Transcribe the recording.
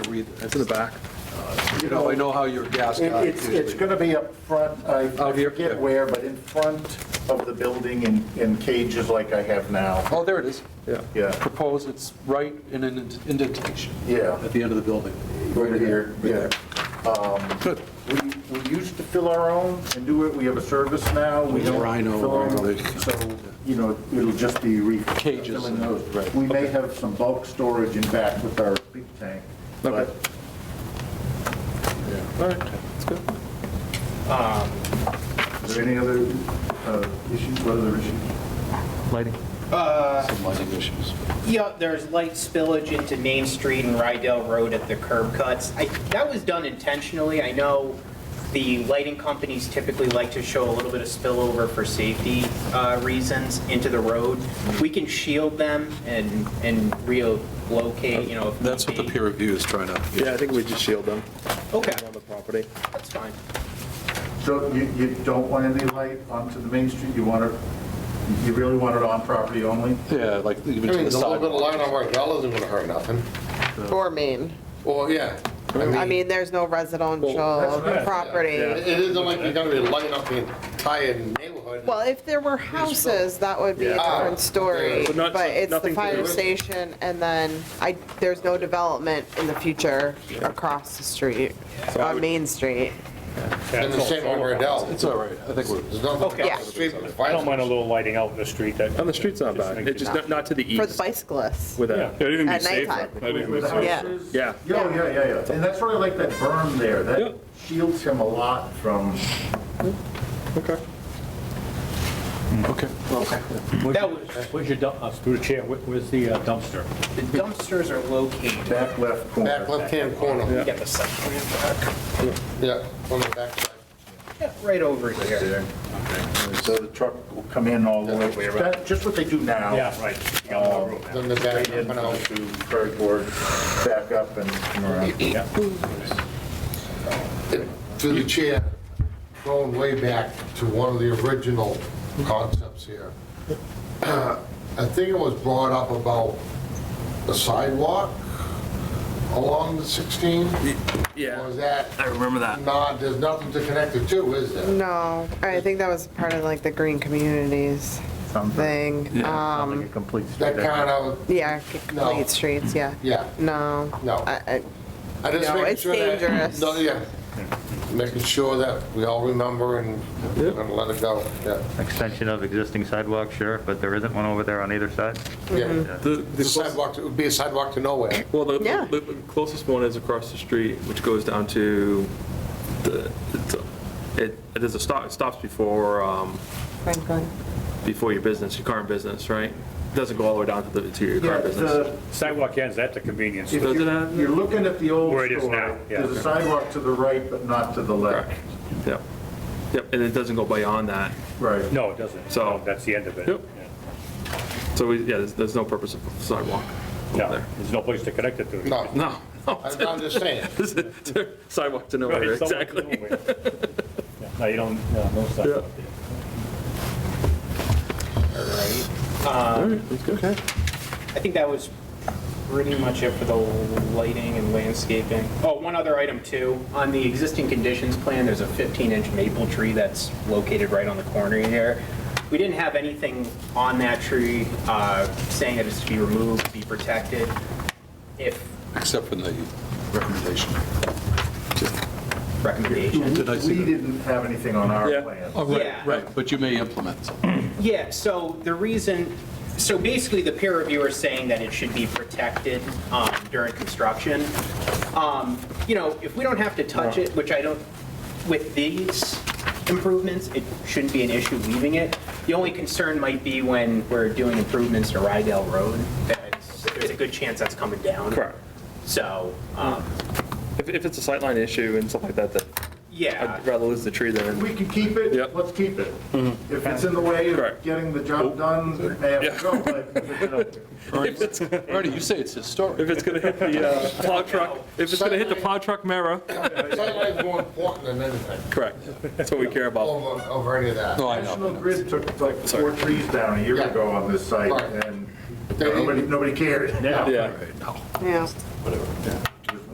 need, it's in the back. You know, I know how your gas It- guy It's, it's usually. going to be up front, I Out here? forget Yeah. where, but in front of the building in, in cages like I have now. Oh, there it is. Yeah. Yeah. Proposed, it's right in an indentation. Yeah. At the end of the building. Right here, yeah. Good. We, we used to fill our own and do it, we have a service now, we don't Rhino, fill our own. Rhino. So, you know, it'll just be re. Cages. filling those. We may have some bulk storage in back with our big tank, but Okay. All right, that's good. are there any other uh, issues, what other issues? Lighting. Some lighting issues. Yeah, there's light spillage into Main Street and Rydell Road at the curb cuts. I- That was done intentionally. I know the lighting companies typically like to show a little bit of spillover for safety uh, reasons into the road. We can shield them and and relocate, you know. if That's what the need be. peer review is trying to, Yeah, I think we just shield them Okay, on the property. that's fine. So you, you don't want any light onto the main street? You want it, you really want it on property only? yeah, like even I to mean, a the little bit of sidewalk. light on Rydell isn't gonna hurt nothing. Or mean, Well, yeah, I mean, there's no residential it property. it isn't like you're gonna be lighting up the entire neighborhood. Well, if there were houses, that would be a Yeah. different story, But but it's the nothing to fire do. station, and then I, there's no development in the future across the street, on Main Street. And the same on It's Rydell. all right, I think we're, There's nothing. Okay. Yeah. I don't mind a little lighting out in the street that. And the street's not Just bad, makes it's just it- not, not to the For the east bicyclists. with Yeah, that. it'd even be At safer. nighttime. That'd even be With safer. houses? Yeah. Yeah, yeah, yeah, yeah. And that's why I like that berm there. Yeah. That shields him a lot from, Okay. okay. That was, Where's your dump, uh, through the chair, where- where's the uh, dumpster? the dumpsters are located. back left Back corner. left-hand corner, We got the site plan back. yeah, on the back side. Yeah, Right over here. There. So the truck will come in all the way. That- Just what they do now. Yeah, right. You got more room now. Then the back, Right in, and go out. to Prairie Board, back up and come around. to the chair, going way back to one of the original concepts here. I think it was brought up about the sidewalk along the 16? Or is that I remember that. not, there's nothing to connect it to, is there? No, I think that was part of like the green communities Something. thing, Something um, that completes That kind of, yeah, complete No. streets, yeah. yeah. No. No. I- I- I just No, making it's sure that- dangerous. No, yeah. Making sure that we all remember and and let it go, yeah. Extension of existing sidewalk, sure, but there isn't one over there on either side? Mm-hmm. Yeah. The, the The sidewalk, it would be a sidewalk to nowhere. Well, the- Yeah. the the closest one is across the street, which goes down to, the it's a- it, it is a stop, it stops before, um, Franklin. before your business, your current business, right? Doesn't go all the way down to the, to your Yeah, current business. the- Sidewalk ends at the convenience. If Does it you're have- you're looking at the old Where it is now, store, yeah. there's a sidewalk to the right, but not to the left. Correct. Yep, yep, and it doesn't go beyond that. Right. No, it doesn't. So- No, That's the end of it. Yep. Yeah. So we, yeah, there's, there's no purpose of sidewalk over No, there. there's no place to connect it to. No, No, no, I'm I'm just saying. This is- sidewalk to Right, nowhere, it's somewhere exactly. in the way. Yeah, No, you don't, no, no sidewalk there. Um, I think that was pretty much it for the lighting and landscaping. Oh, one other item too, on the existing conditions plan, there's a 15-inch maple tree that's located right on the corner here. We didn't have anything on that tree uh, saying that it's to be removed, be protected. If Except for the recommendation. recommendation. Did I We see that? didn't have anything on our Yeah. plan. Oh, right, Yeah. right, but you may implement something. Yeah, so the reason, so basically the peer reviewer is saying that it should be protected um, during construction. Um, You know, if we don't have to touch it, which I don't, with these improvements, it shouldn't be an issue leaving it. The only concern might be when we're doing improvements to Rydell Road, that it's- there's a good chance that's coming down. Correct. So, um, If, if it's a sightline issue and stuff like that, then yeah. I'd rather lose the tree than, We can keep it, Yep. let's keep it. Mm-hmm. If it's in the way of Correct. getting the Oh. job done, it may have to go, but Ernie, you say it's historic. if it's gonna hit the uh, plow truck, if it's gonna hit the plow truck mirror, Sightline's more important than anything, correct, that's what we care about. over, over any of that. No, I National know. Grid took like four trees down a year Yeah. ago on this site, Right. and nobody, nobody cared. Yeah. Yeah. Yeah.